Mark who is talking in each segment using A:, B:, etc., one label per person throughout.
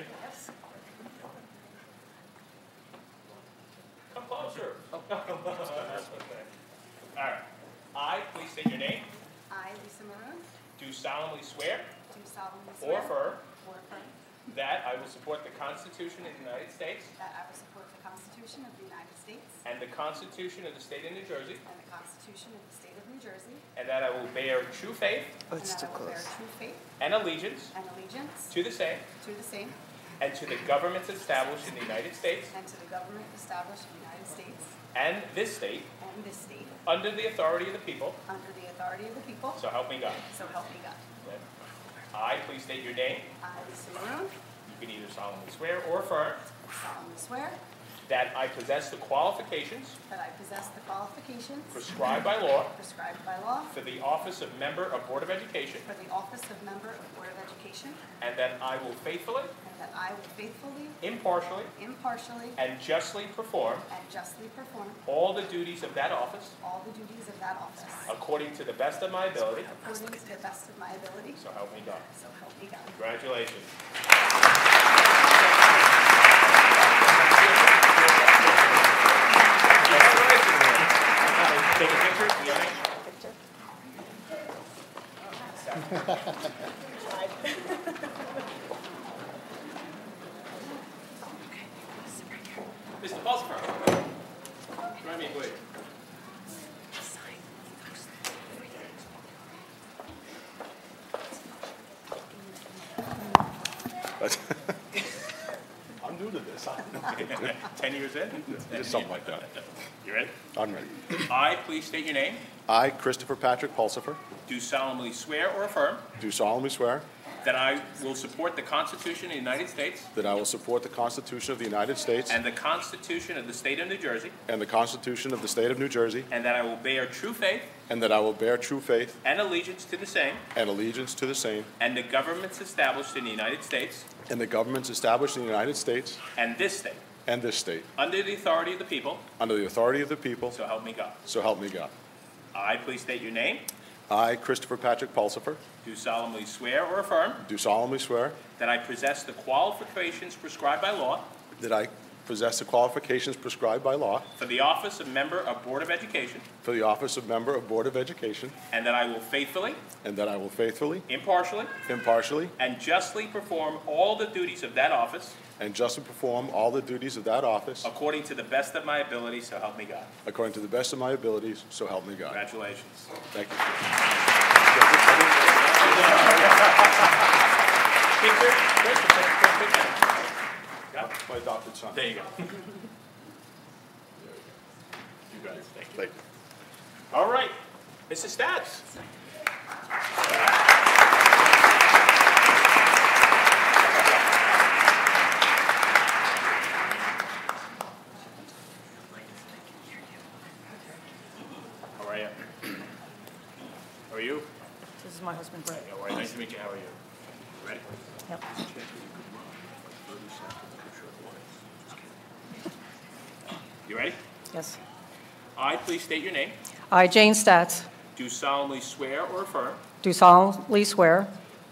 A: state your name,
B: I, Lisa Maroon, do
A: do solemnly swear
B: solemnly
A: or
B: swear.
A: affirm
B: or affirm
A: that I will support the Constitution of the United States
B: that I will support the Constitution of the United States
A: and the Constitution of the State of New Jersey,
B: and the Constitution of the State of New Jersey,
A: and that I will bear true faith
B: and
C: Oh, it's
B: that
C: too
B: I will bear
C: close.
B: true faith
A: and allegiance
B: and allegiance
A: to the same
B: to the same
A: and to the governments established in the United States
B: and to the government established in the United States
A: and this state
B: and this state,
A: under the authority of the people,
B: under the authority of the people,
A: so help me God.
B: so help me God.
A: I, please state your name,
B: I, Lisa Maroon,
A: you can either solemnly swear or affirm
B: solemnly swear
A: that I possess the qualifications
B: that I possess the qualifications
A: prescribed by law
B: prescribed by law
A: for the office of member of Board of Education,
B: for the office of member of Board of Education,
A: and that I will faithfully,
B: and that I will faithfully,
A: impartially,
B: impartially,
A: and justly perform
B: and justly perform
A: all the duties of that office
B: all the duties of that office
A: according to the best of my ability,
B: according to the best of my ability,
A: so help me God.
B: so help me God.
A: Congratulations. Take a picture, you want it? Mr. Pulsar. Grab me, please.
D: I'm new to this.
A: Ten years in?
D: Just something like that.
A: You ready?
D: I'm ready.
A: I, please state your name,
D: I, Christopher Patrick Pulsifer,
A: do solemnly swear or affirm
D: do solemnly swear
A: that I will support the Constitution of the United States
D: that I will support the Constitution of the United States
A: and the Constitution of the State of New Jersey,
D: and the Constitution of the State of New Jersey,
A: and that I will bear true faith
D: and that I will bear true faith
A: and allegiance to the same
D: and allegiance to the same
A: and the governments established in the United States
D: and the governments established in the United States
A: and this state,
D: and this state,
A: under the authority of the people,
D: under the authority of the people,
A: so help me God.
D: so help me God.
A: I, please state your name,
D: I, Christopher Patrick Pulsifer,
A: do solemnly swear or affirm
D: do solemnly swear
A: that I possess the qualifications prescribed by law
D: that I possess the qualifications prescribed by law
A: for the office of member of Board of Education,
D: for the office of Member of Board of Education,
A: and that I will faithfully,
D: and that I will faithfully,
A: impartially,
D: impartially,
A: and justly perform all the duties of that office
D: And justly perform all the duties of that office
A: according to the best of my ability, so help me God.
D: according to the best of my abilities, so help me God.
A: Congratulations.
D: Thank you.
A: Picture, picture, picture, picture.
D: My adopted son.
A: There you go. You guys, thank you.
D: Thank you.
A: All right, Mrs. Stats. How are you? How are you?
E: This is my husband, Brett.
A: Hey, All right, nice to meet you, how are you? Ready?
E: Yep.
A: You ready?
E: Yes.
A: I, please state your name,
E: I, Jane Stats,
A: do solemnly swear or affirm
E: do solemnly swear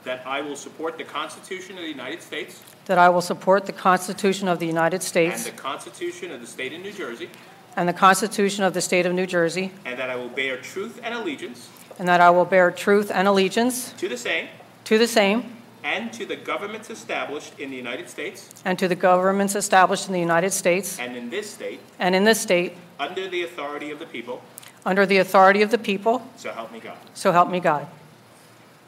A: that I will support the Constitution of the United States
E: that I will support the Constitution of the United
A: and
E: States
A: the Constitution of the State of New Jersey,
E: and the Constitution of the State of New Jersey,
A: and that I will bear truth and allegiance
E: and that I will bear truth and allegiance
A: to the same
E: to the same
A: and to the governments established in the United States
E: and to the governments established in the United States
A: and in this state,
E: and in this state,
A: under the authority of the people,
E: under the authority of the people,
A: so help me God.
E: so help me God.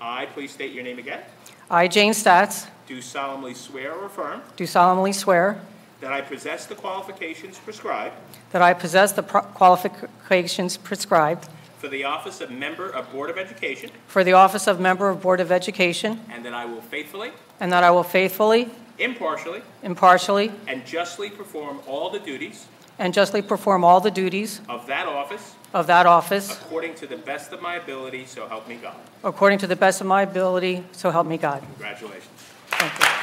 A: I, please state your name again,
E: I, Jane Stats,
A: do solemnly swear or affirm
E: do solemnly swear
A: that I possess the qualifications prescribed
E: that I possess the pro- qualifications prescribed
A: for the office of Member of Board of Education,
E: for the office of Member of Board of Education,
A: and that I will faithfully,
E: and that I will faithfully,
A: impartially,
E: impartially,
A: and justly perform all the duties
E: And justly perform all the duties
A: of that office
E: of that office
A: according to the best of my ability, so help me God.
E: according to the best of my ability, so help me God.
A: Congratulations.
E: Thank you.